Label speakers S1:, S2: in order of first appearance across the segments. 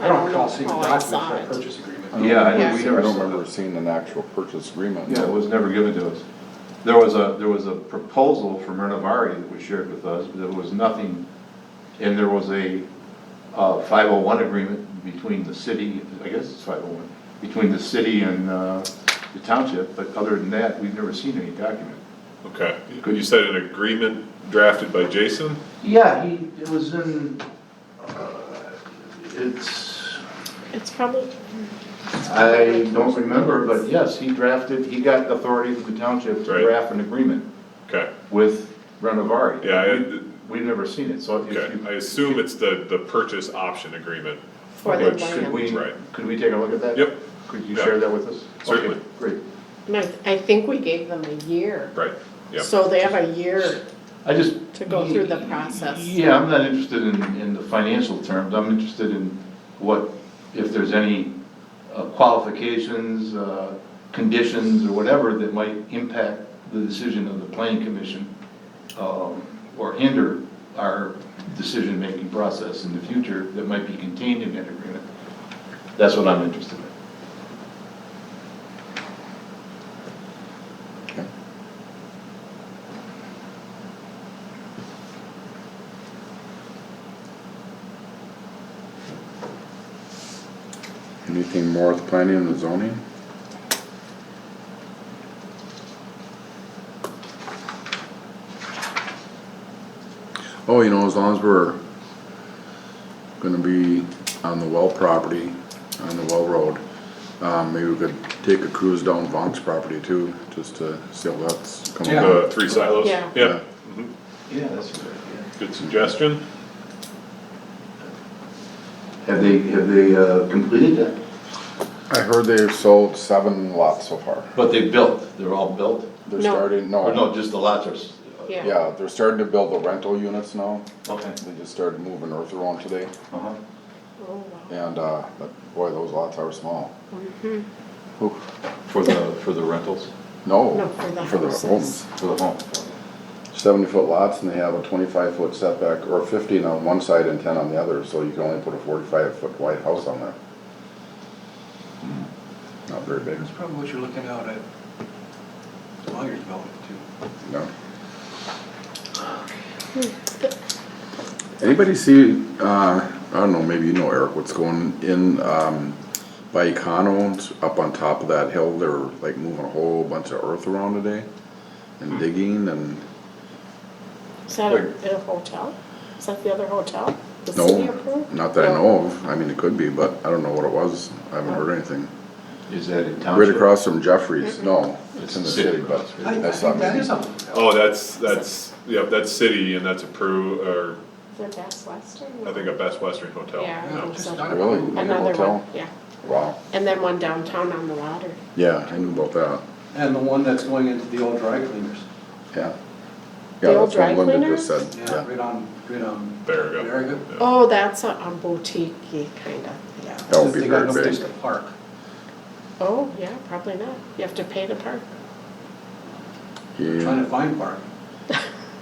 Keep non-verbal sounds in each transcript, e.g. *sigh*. S1: I don't recall seeing the
S2: how I
S1: documents
S2: saw
S1: for a
S2: it.
S1: purchase agreement.
S3: I don't Yeah, I
S2: think
S1: We
S2: we
S1: never saw
S3: never saw
S1: that.
S3: that.
S4: remember seeing an actual purchase agreement.
S3: Yeah, it was never given to us. There was a, there was a proposal from Renovari that was shared with us, but there was nothing, and there was a uh, 501 agreement between the city, I guess it's 501, between the city and uh, the township, but other than that, we've never seen any document.
S5: Okay, you said an agreement drafted by Jason?
S3: Yeah, he, it was in, uh, it's,
S2: It's probably,
S3: I don't remember, but yes, he drafted, he got authority from the township to
S5: Right.
S3: draft an agreement
S5: Okay,
S3: with Renovari.
S5: yeah, I,
S3: We've never seen it, so if you.
S5: okay, I assume it's the, the purchase option agreement.
S2: For the
S3: Which,
S2: land.
S3: Could we,
S5: Right.
S3: could we take a look at that?
S5: Yep.
S3: Could you
S5: Yeah.
S3: share that with us?
S5: Certainly.
S3: Okay, Great.
S2: no, I think we gave them a year.
S5: Right, yeah.
S2: So they have a year.
S3: I just.
S2: To go through the process.
S3: Yeah, I'm not interested in, in the financial terms, I'm interested in what, if there's any uh, qualifications, uh, conditions, or whatever that might impact the decision of the planning commission, um, or hinder our decision-making process in the future that might be contained in that agreement. That's what I'm interested in.
S4: Anything more with planning and zoning? Oh, you know, as long as we're gonna be on the well property, on the well road, um, maybe we could take a cruise down Vonk's property too, just to see how that's coming. up.
S5: The three silos?
S2: Yeah.
S5: Yeah,
S3: Yeah, that's a good idea.
S5: good suggestion.
S3: Have they, have they uh, completed that?
S4: I heard they've sold seven lots so far.
S3: But they built, they're all built?
S4: They're
S2: No.
S4: starting, no,
S3: Or Oh, no, just the lots are, s-
S2: Yeah.
S4: yeah, they're starting to build the rental units now.
S3: okay.
S4: They just started moving earth around today.
S3: Uh-huh.
S2: Oh, wow.
S4: And, uh, but boy, those lots are small. Whew.
S3: For the, for the rentals,
S2: No,
S4: No,
S2: for the
S4: for the
S2: houses.
S4: homes.
S3: for the home?
S4: Seventy foot lots and they have a twenty-five foot setback or fifteen on one side and ten on the other, so you can only put a forty-five foot wide house on there. Not very big,
S1: That's probably what you're looking out at Lawyer's Development too.
S4: no. Anybody see, uh, I don't know, maybe you know Eric, what's going in, um, by Econo, up on top of that hill, they're like moving a whole bunch of earth around today and digging and
S2: Is that a, a hotel? Is that the other hotel? The city
S4: No,
S2: approved?
S4: not that I
S2: No.
S4: know of. I mean, it could be, but I don't know what it was. I haven't heard anything.
S3: Is that in township?
S4: Right across from Jeffrey's, no, it's in the
S3: City.
S4: city, but
S1: I, I
S4: that's not
S1: think that
S4: me.
S1: is something.
S5: Oh, that's, that's, yeah, that's city and that's approved, or
S2: The Best Western?
S5: I think a Best Western Hotel.
S2: Yeah.
S5: No.
S1: Just not a-
S4: Really? In a
S2: Another
S4: hotel?
S2: one, yeah.
S4: Wow,
S2: And then one downtown on the water.
S4: yeah, I knew about that,
S1: And the one that's going into the old dry cleaners.
S4: yeah.
S2: The
S4: Yeah,
S2: old
S4: that's
S2: dry
S4: what Linda just
S2: cleaners?
S4: said,
S1: Yeah,
S4: yeah.
S1: right on, right on.
S5: Barriga.
S1: Barriga.
S5: Yeah.
S2: Oh, that's a, a boutique-y kind of, yeah.
S4: That would
S1: Since
S4: be
S1: they got
S4: very
S1: no place
S4: big.
S1: to Park.
S2: Oh, yeah, probably not. You have to pay to park.
S1: Trying
S4: Yeah,
S1: to find park.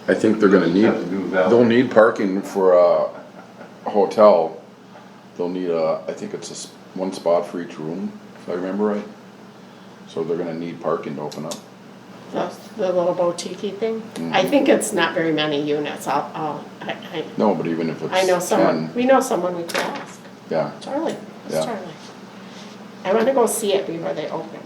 S4: I think they're gonna need,
S3: Have to move out.
S4: they'll need parking for a hotel. They'll need a, I think it's a, s- one spot for each room, if I remember right. So they're gonna need parking to open up.
S2: The, the little boutique-y thing. I think it's not very many units. I'll, I'll, I,
S4: No, but even if it's
S2: I, I know someone,
S4: 10,
S2: we know someone we could ask.
S4: Yeah.
S2: Charlie, it's
S4: Yeah.
S2: Charlie. I want to go see it before they open.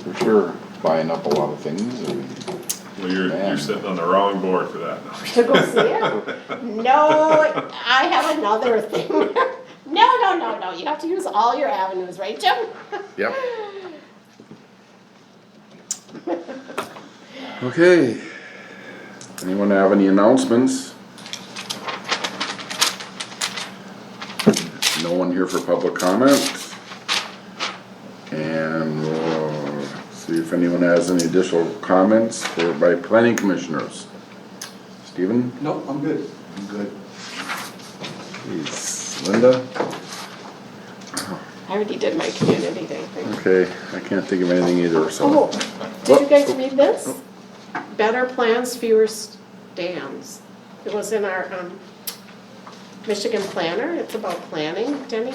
S4: For sure, buying up a lot of things and
S5: Well, you're, you're
S4: Man.
S5: sitting on the wrong board for that.
S2: To go see it? *laughs* No, I have another thing. *laughs* No, no, no, no, you have to use all your avenues, right, Jim? *laughs*
S4: Yep. Okay. Anyone have any announcements? No one here for public comment. And we'll see if anyone has any additional comments for, by planning commissioners. Stephen?
S1: Nope, I'm good.
S3: I'm Good.
S4: Please. Linda?
S2: I already did my community day thing.
S4: Okay, I can't think of anything either,
S2: Oh,
S4: so. oh.
S2: did you guys read this? Better plans, fewer dams. It was in our, um, Michigan Planner, it's about planning, Denny